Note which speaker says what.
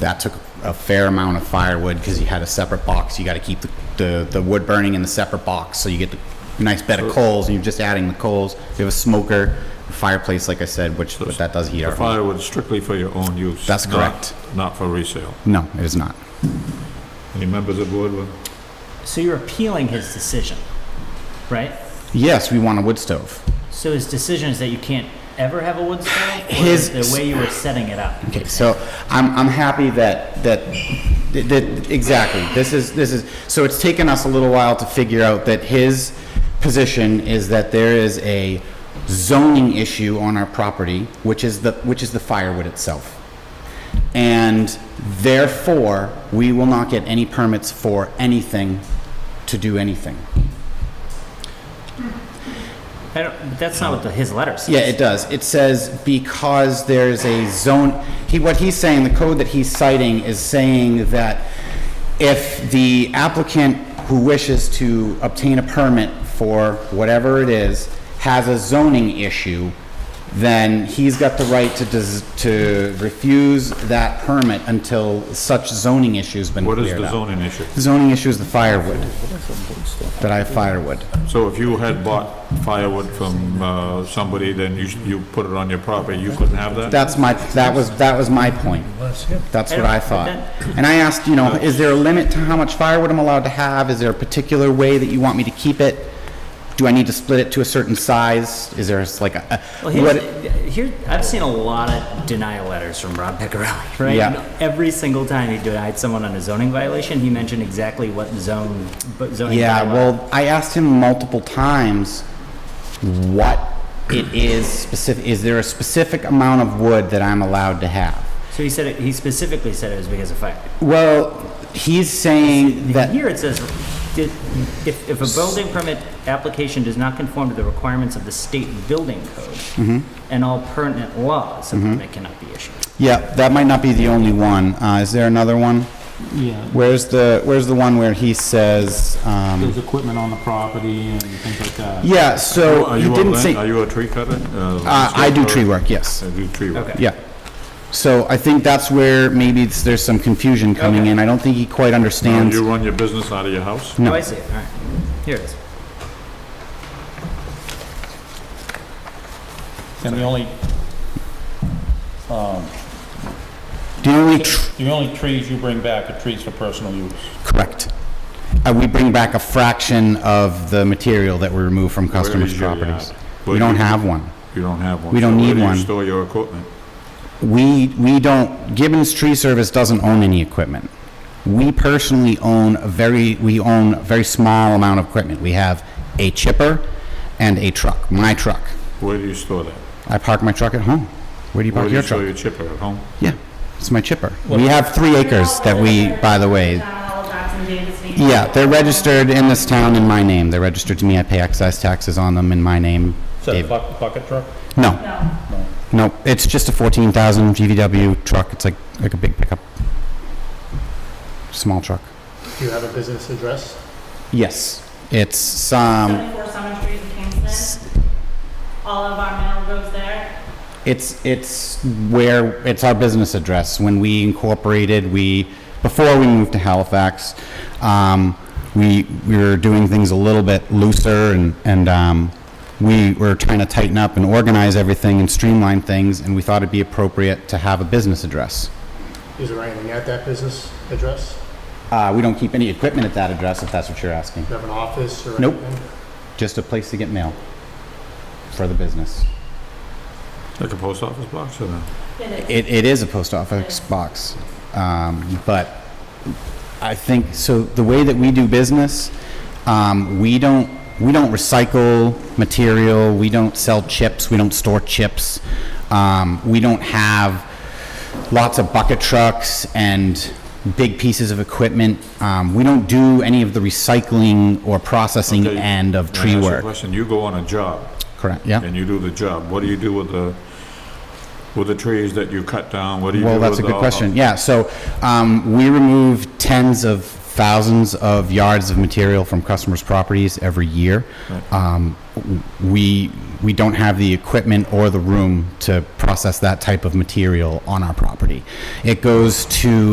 Speaker 1: That took a fair amount of firewood because you had a separate box. You got to keep the, the, the wood burning in the separate box, so you get the nice bed of coals, and you're just adding the coals. We have a smoker, fireplace, like I said, which, but that does heat
Speaker 2: The
Speaker 1: our home.
Speaker 2: firewood strictly for your own use?
Speaker 1: That's
Speaker 2: not-
Speaker 1: correct.
Speaker 2: Not for resale.
Speaker 1: No, it is not.
Speaker 2: Any members of the board with?
Speaker 3: So you're appealing his decision, right?
Speaker 1: Yes, we want a wood stove.
Speaker 3: So his decision is that you can't ever have a wood stove? or
Speaker 1: His-
Speaker 3: The way you were setting it up?
Speaker 1: Okay, so I'm, I'm happy that, that, that, exactly, this is, this is, so it's taken us a little while to figure out that his position is that there is a zoning issue on our property, which is the, which is the firewood itself. And therefore, we will not get any permits for anything to do anything.
Speaker 3: I don't, but that's not what the, his letter says.
Speaker 1: Yeah, it does. It says because there's a zone, he, what he's saying, the code that he's citing is saying that if the applicant who wishes to obtain a permit for whatever it is has a zoning issue, then he's got the right to, dis- to refuse that permit until such zoning issue's been
Speaker 2: What
Speaker 1: cleared up.
Speaker 2: is the zoning issue?
Speaker 1: The Zoning issue is the firewood, that I have firewood.
Speaker 2: So if you had bought firewood from uh, somebody, then you, sh- you put it on your property, you couldn't have that?
Speaker 1: That's my, that was, that was my point. That's what I thought. And I asked, you know, is there a limit to how much firewood I'm allowed to have? Is there a particular way that you want me to keep it? Do I need to split it to a certain size? Is there s- like a, a-
Speaker 3: Well, here's,
Speaker 1: what?
Speaker 3: here, I've seen a lot of denial letters from Rob Peccarelli, right?
Speaker 1: Yeah.
Speaker 3: Every single time he denied someone on a zoning violation, he mentioned exactly what zone, but zoning.
Speaker 1: Yeah,
Speaker 3: bylaw.
Speaker 1: well, I asked him multiple times what it is specific, is there a specific amount of wood that I'm allowed to have?
Speaker 3: So he said, it- he specifically said it was because of fire.
Speaker 1: Well, he's saying that.
Speaker 3: Here it says, "Did- if, if a building permit application does not conform to the requirements of the state building code and all pertinent laws, a permit cannot be issued.
Speaker 1: Yeah, that might not be the only one. Uh, is there another one?
Speaker 4: Yeah,
Speaker 1: Where's the, where's the one where he says, um,
Speaker 4: there's equipment on the property and things like that.
Speaker 1: yeah, so
Speaker 2: Are
Speaker 1: he
Speaker 2: you a
Speaker 1: didn't
Speaker 2: land-
Speaker 1: say,
Speaker 2: Are
Speaker 1: uh,
Speaker 2: you a tree cutter? Uh,
Speaker 1: I do
Speaker 2: landscaper?
Speaker 1: tree work, yes,
Speaker 2: I do tree work.
Speaker 3: Okay.
Speaker 1: yeah. So I think that's where maybe it's, there's some confusion coming in. I don't think he quite
Speaker 2: Now,
Speaker 1: understands.
Speaker 2: You run your business out of your house?
Speaker 1: No.
Speaker 3: Oh, I see, all right. Here it is.
Speaker 4: And the only,
Speaker 1: The only, tr-
Speaker 4: the only trees you bring back are trees for personal use.
Speaker 1: correct. Uh, we bring back a fraction of the material that we remove from customers'
Speaker 2: is your yard?
Speaker 1: properties.
Speaker 2: Where
Speaker 1: We
Speaker 2: do
Speaker 1: don't
Speaker 2: you-
Speaker 1: have one.
Speaker 2: You don't have one?
Speaker 1: We don't
Speaker 2: So
Speaker 1: need
Speaker 2: Where do
Speaker 1: one.
Speaker 2: you store your equipment?
Speaker 1: We, we don't, Gibbons Tree Service doesn't own any equipment. We personally own a very, we own a very small amount of equipment. We have a chipper and a truck, my truck.
Speaker 2: Where do you store that?
Speaker 1: I park my truck at home. Where do you
Speaker 2: Where
Speaker 1: park
Speaker 2: do you
Speaker 1: your
Speaker 2: store
Speaker 1: truck?
Speaker 2: your chipper, at home?
Speaker 1: Yeah, it's my chipper. We have three acres that we, by the way, yeah, they're registered in this town in my name. They're registered to me. I pay excise taxes on them in my name.
Speaker 4: Is that a
Speaker 1: Dave-
Speaker 4: buck- bucket truck?
Speaker 1: No,
Speaker 5: No,
Speaker 1: no, it's just a 14,000 GVW truck. It's like, like a big pickup. Small truck.
Speaker 6: Do you have a business address?
Speaker 1: Yes, it's um, some,
Speaker 5: 74 Summer Street in Kingston. All of our mail goes there.
Speaker 1: it's, it's where, it's our business address. When we incorporated, we, before we moved to Halifax, um, we, we were doing things a little bit looser and, and, um, we were trying to tighten up and organize everything and streamline things, and we thought it'd be appropriate to have a business address.
Speaker 6: Is there anything at that business address?
Speaker 1: Uh, we don't keep any equipment at that address, if that's what you're asking.
Speaker 6: Do you have an office or
Speaker 1: Nope.
Speaker 6: anything?
Speaker 1: Just a place to get mail for the business.
Speaker 2: Like a post office box or no?
Speaker 5: It is.
Speaker 1: It, it is a post office box, um, but I think, so the way that we do business, um, we don't, we don't recycle material, we don't sell chips, we don't store chips, um, we don't have lots of bucket trucks and big pieces of equipment. Um, we don't do any of the recycling or processing
Speaker 2: Okay,
Speaker 1: end of
Speaker 2: Can I
Speaker 1: tree
Speaker 2: ask you a
Speaker 1: work.
Speaker 2: Question, you go on a job
Speaker 1: Correct, yeah.
Speaker 2: and you do the job, what do you do with the, with the trees that you cut down? What do you do
Speaker 1: Well,
Speaker 2: with
Speaker 1: that's a good
Speaker 2: all-
Speaker 1: question. Yeah, so um, we remove tens of thousands of yards of material from customers' properties every year. Um, w- We, we don't have the equipment or the room to process that type of material on our property. It goes to